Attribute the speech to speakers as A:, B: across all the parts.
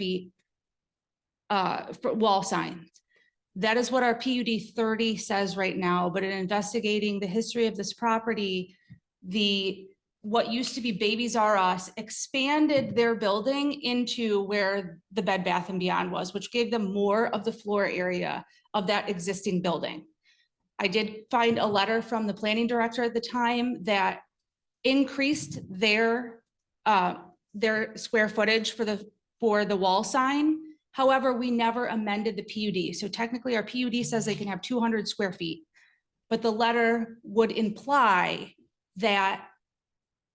A: feet uh, for wall signs. That is what our PUD thirty says right now, but in investigating the history of this property, the, what used to be Babies R Us expanded their building into where the Bed Bath and Beyond was, which gave them more of the floor area of that existing building. I did find a letter from the planning director at the time that increased their, uh, their square footage for the, for the wall sign. However, we never amended the PUD. So technically, our PUD says they can have two hundred square feet. But the letter would imply that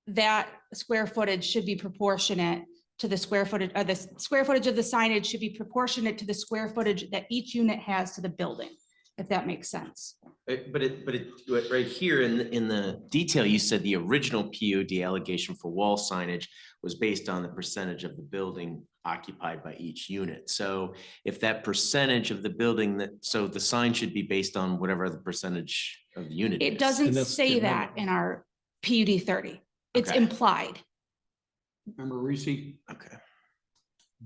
A: that square footage should be proportionate to the square footage, or the s- square footage of the signage should be proportionate to the square footage that each unit has to the building, if that makes sense.
B: Uh, But it, but it, but right here in, the- in the detail, you said the original POD allegation for wall signage was based on the percentage of the building occupied by each unit. So if that percentage of the building that, so the sign should be based on whatever the percentage of the unit.
A: It
B: is.
A: doesn't
C: that's
A: say
C: good, yeah.
A: that in our PUD thirty. It's
B: Okay.
A: implied.
D: Member Reese,
B: Okay.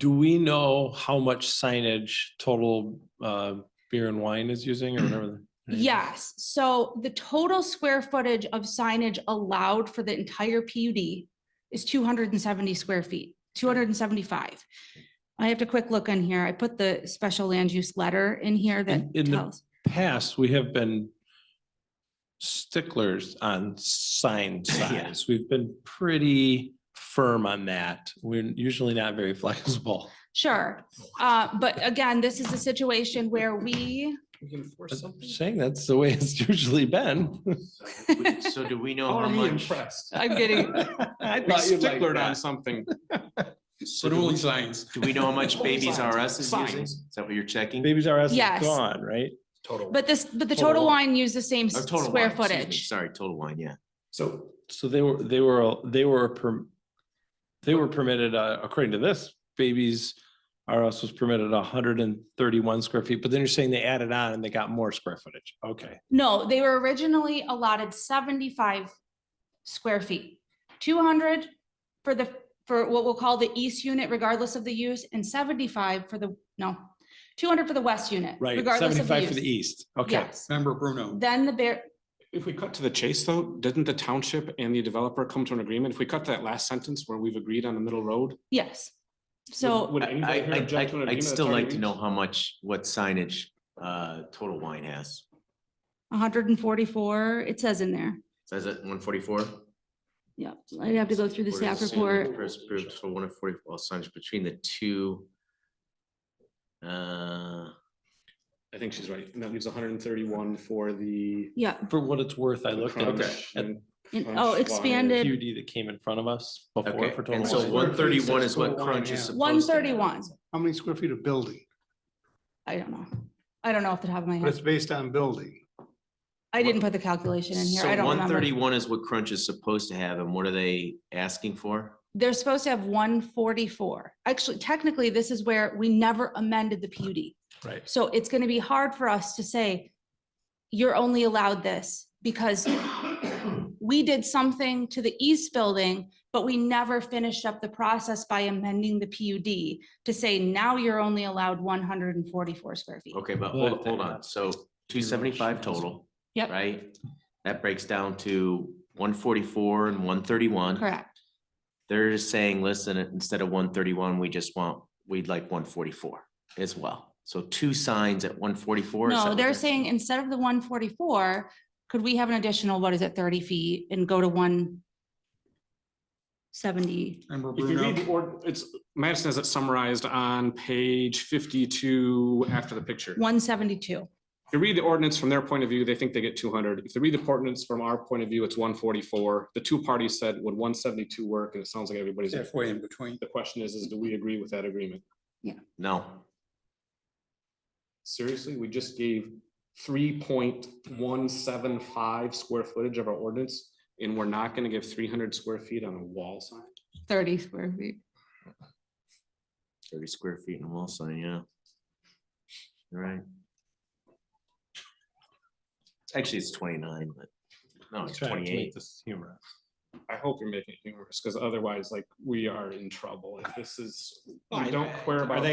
C: Do we know how much signage total uh, beer and wine is using or whatever? the-
A: Yes, so the total square footage of signage allowed for the entire PUD is two hundred and seventy square feet, two hundred and seventy-five. I have to quick look on here. I put the special land use letter in here that
C: In- in the-
A: tells.
C: Past, we have been sticklers on sign
B: Yeah.
C: size. We've been pretty firm on that. We're usually not very flexible.
A: Sure, uh, but again, this is a situation where we,
D: we can force
C: I'm
D: something.
C: Saying that's the way it's usually been.
B: We- So do we know
D: How
B: how
D: are you
B: much?
D: impressed?
A: I'm getting,
C: I
D: We
C: thought you'd like
D: sticklered on
C: that.
D: something,
B: so do
D: but only
B: we-
D: signs.
B: Do we know how much
D: Only
B: Babies
D: signs.
B: R Us is using?
D: Signs.
B: Is that what you're checking?
C: Babies R Us is
A: Yes.
C: gone, right?
D: Total.
A: but this, but the
C: Total
A: total
C: wine.
A: wine used the same
B: Or
A: s-
B: total
A: square
B: wine, excuse me.
A: footage.
B: Sorry, total wine, yeah.
D: So
C: So they were, they were, they were, per- they were permitted, uh, according to this, babies R Us was permitted hundred and thirty-one square feet, but then you're saying they added on and they got more square footage. Okay.
A: No, they were originally allotted seventy-five square feet. Two hundred for the, for what we'll call the east unit regardless of the use and seventy-five for the, no, two hundred for the west unit.
C: Right,
A: regardless of
C: seventy-five for the
A: use.
C: east. Okay.
A: Yes.
D: member Bruno,
A: Then the bear,
E: If we cut to the chase, though, didn't the township and the developer come to an agreement? If we cut to that last sentence where we've agreed on the middle road? would-
A: yes. So
E: would
B: I,
E: anybody here
B: I- I-
E: object to an
B: I'd- I'd
E: agreement
B: still
E: that's already
B: like to
E: reached?
B: know how much, what signage, uh, Total Wine has.
A: hundred and forty-four, it says in there.
B: Says it one forty-four?
A: Yep, I'd have to go through the staff report.
B: approved for one of forty, well, signage between the two. Uh,
E: I think she's right. And that leaves hundred and thirty-one for the.
A: Yeah,
C: For what it's worth, I looked at the
E: crunch
C: at
E: and-
A: and-
E: Punch
A: oh,
E: wire.
C: the
A: expanded,
C: PUD that came in front of us before
B: okay,
C: for total.
B: and so
D: wine.
B: one thirty-one is what
D: Total wine,
B: Crunch
D: yeah.
B: is supposed to.
A: one thirty-one,
F: How many square feet of building?
A: I don't know. I don't know off the top of my
F: But it's
A: head.
F: based on building.
A: I didn't put the calculation in here, I
B: So
A: don't
B: one
A: remember.
B: thirty-one is what Crunch is supposed to have, and what are they asking for?
A: they're supposed to have one forty-four. Actually, technically, this is where we never amended the PUD.
C: Right.
A: So it's gonna be hard for us to say, you're only allowed this because we did something to the east building, but we never finished up the process by amending the PUD to say now you're only allowed one hundred and forty-four square feet.
B: Okay, but
C: Well,
B: hold, hold on, so two seventy-five total.
A: Yep.
B: Right? That breaks down to one forty-four and one thirty-one.
A: Correct.
B: They're just saying, listen, instead of one thirty-one, we just want, we'd like one forty-four as well. So two signs at one forty-four.
A: No, they're saying instead of the one forty-four, could we have an additional, what is it, thirty feet and go to one seventy?
D: member
E: If you read the
D: Bruno,
E: ord, it's, Madison has it summarized on page fifty-two after the picture. If
A: 172.
E: you read the ordinance from their point of view, they think they get two hundred. If you read the ordinance from our point of view, it's one forty-four. The two parties said, would one seventy-two work? And it sounds like everybody's.
D: halfway in between.
E: The question is, is do we agree with that agreement?
B: No,
E: Seriously, we just gave three point one seven five square footage of our ordinance, and we're not gonna give three hundred square feet on a wall sign?
A: 30 square feet.
B: thirty square feet and wall sign, yeah. You're Right. Actually, it's twenty-nine, but no, it's
C: Trying to make
B: twenty-eight.
C: this humorous.
E: I hope you're making it humorous, because otherwise, like, we are in trouble. If this is,
D: I-
E: we don't care
D: Are
E: about.